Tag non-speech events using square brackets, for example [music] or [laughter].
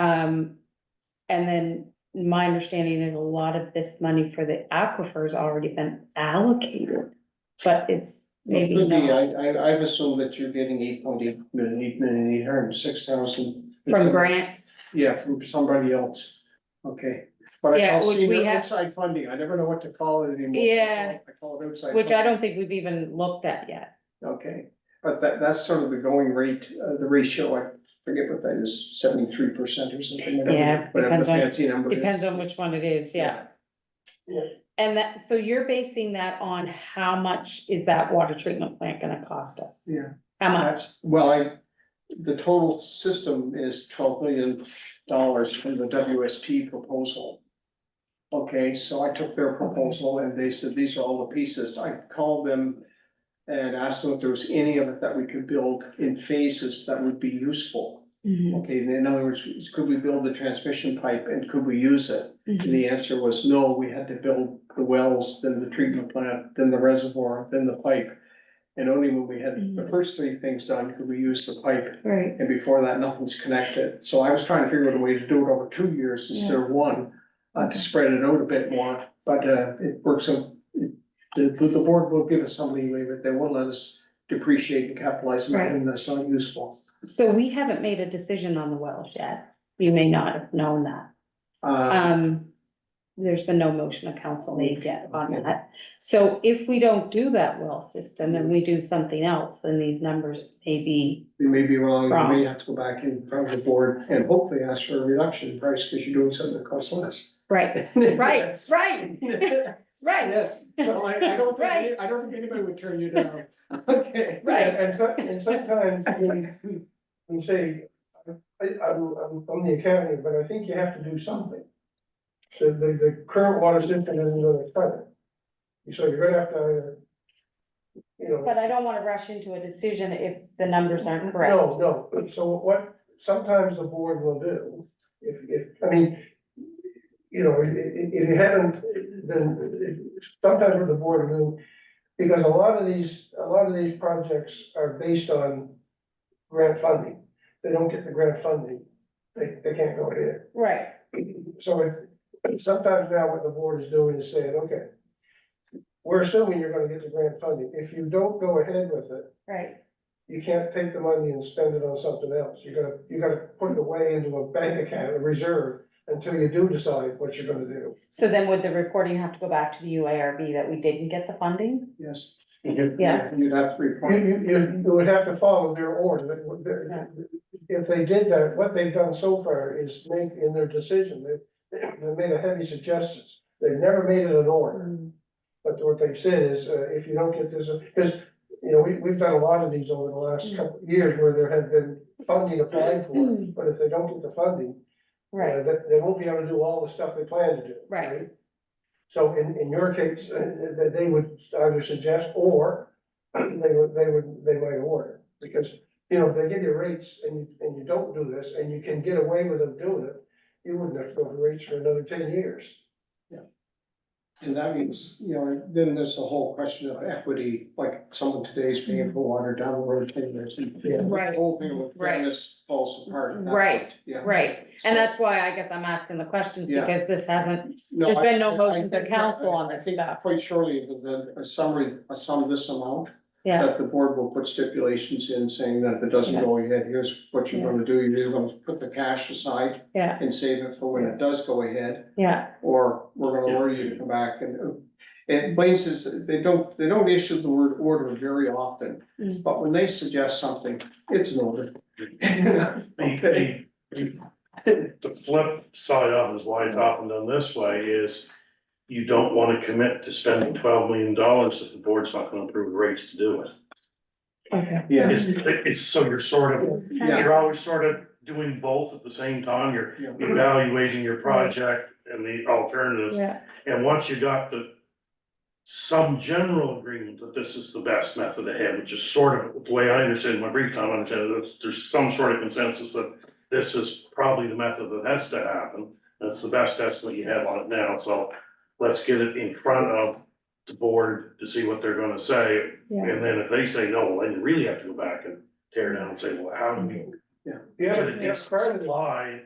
Um, and then my understanding is a lot of this money for the aquifers already been allocated, but it's It maybe could be, not I, I, I've assumed that you're getting eight point eight million, eight million, eight hundred and six thousand. from grants. Yeah, from somebody else, okay. But I Yeah, call which we senior have- outside funding, I never know what to call it anymore. Yeah. I call it outside. Which I funding. don't think we've even looked at yet. Okay, but that, that's sort of the going rate, uh, the ratio, I forget what that is, seventy-three percent or something, Yeah, whatever, whatever the depends on- fancy number is. Depends on which one it is, yeah. And that, so you're basing that on how much is that water treatment plant gonna cost us? Yeah. How much? Well, I, the total system is twelve million dollars from the WSP proposal. Okay, so I took their proposal and they said, these are all the pieces. I called them and asked them if there was any of it that we could build in phases that would be useful. Hmm. Okay, in other words, could we build the transmission pipe and could we use it? And the answer was no, we had to build the wells, then the treatment plant, then the reservoir, then the pipe. And only when we had the Mhm. first three things done could we use the pipe, Right, and before that, nothing's connected. So I was trying to figure out a way to do it over two years instead of one, uh, to spread it out a bit more, but, uh, it works out. it- The, the board will give us some leeway, but they won't let us depreciate and capitalize Right. something that's not useful. so we haven't made a decision on the wells yet. You may not have known that. Uh, Um, there's been no motion of council made yet on that. So if we don't do that well system and we do something else, then these numbers may be, we may be wrong, we may have to go back in front of the board and hopefully ask for a reduction in price, because you're doing something that costs less. right, right, [laughs] Yes. right, right. Yes, so I, I don't think, any- I don't think anybody would turn you down, [laughs] okay. Right. And so, and sometimes [laughs] when we, we say, I, I'm, I'm from the academy, but I think you have to do something. The, the, the current water system isn't gonna cut it. So you're gonna have to, either, you know. But I don't wanna rush into a decision if the numbers aren't correct. No, no, so what, sometimes the board will do, if, if, I mean, you know, i- i- if you haven't, then sometimes what the board will do, because a lot of these, a lot of these projects are based on grant funding. They don't get the grant funding, they, they can't go ahead. Right, So it's, sometimes now what the board is doing is saying, okay, we're assuming you're gonna get the grant funding. If you don't go ahead with it, right, you can't take the money and spend it on something else. You gotta, you gotta put it away into a bank account, a reserve, until you do decide what you're gonna do. so then would the reporting have to go back to the UARB that we didn't get the funding? Yes. You'd- Yeah. You'd have to report. You, you, you- you would have to follow their order. That would- that- If they did that, what they've done so far is make in their decision, they, they made a heavy suggestions. They've never made it an order. Mm. But what they've said is, uh, if you don't get this, because, you know, we, we've done a lot of these over the last couple of years where there have been funding applied for, but if they don't get the funding, you know, Right, They, they won't be able to do all the stuff they plan to do. Right. So in, in your case, uh, that they would either suggest or [clears throat] they would, they would, they might order. Because, you know, if they give you rates and, you- and you don't do this and you can get away with them doing it, you wouldn't have to go to rates for another ten years. And that means, you know, then there's the whole question of equity, like someone today's paying for water down the road ten years. and Yeah. Right. The whole thing with Right. fairness falls apart. at that Right, point, Yeah. right, So- and that's why I guess I'm asking the questions, Yeah. because this hasn't, No, there's I- been no I- motion I to think- council on I- I this think stuff. Quite surely, with the- a summary, a sum this amount, yeah, that the board will put stipulations in saying that if it doesn't go ahead, here's what you're gonna do. You're either gonna put the cash aside yeah, and save it for when it does go ahead, yeah, or we're gonna order you to come back and. uh, And Blaine says, they don't, they don't issue the word order very often, Mm. but when they suggest something, it's an order. Okay. The flip side of it is why it's often done this way is you don't want to commit to spending twelve million dollars if the board's not going to approve rates to do it. okay. Yeah, It's, it's, so you're sort of, yeah, you're always sort of doing both at the same time. You're [laughs] yeah. evaluating your project and the alternatives. Yeah, And once you got the some general agreement that this is the best method ahead, which is sort of the way I understand, my brief time, I understand that there's some sort of consensus that this is probably the method that has to happen. That's the best estimate you have on it now, so let's get it in front of the board to see what they're gonna say. yeah, And then if they say no, well, then you really have to go back and tear down and say, well, how do we Yeah. get a decent supply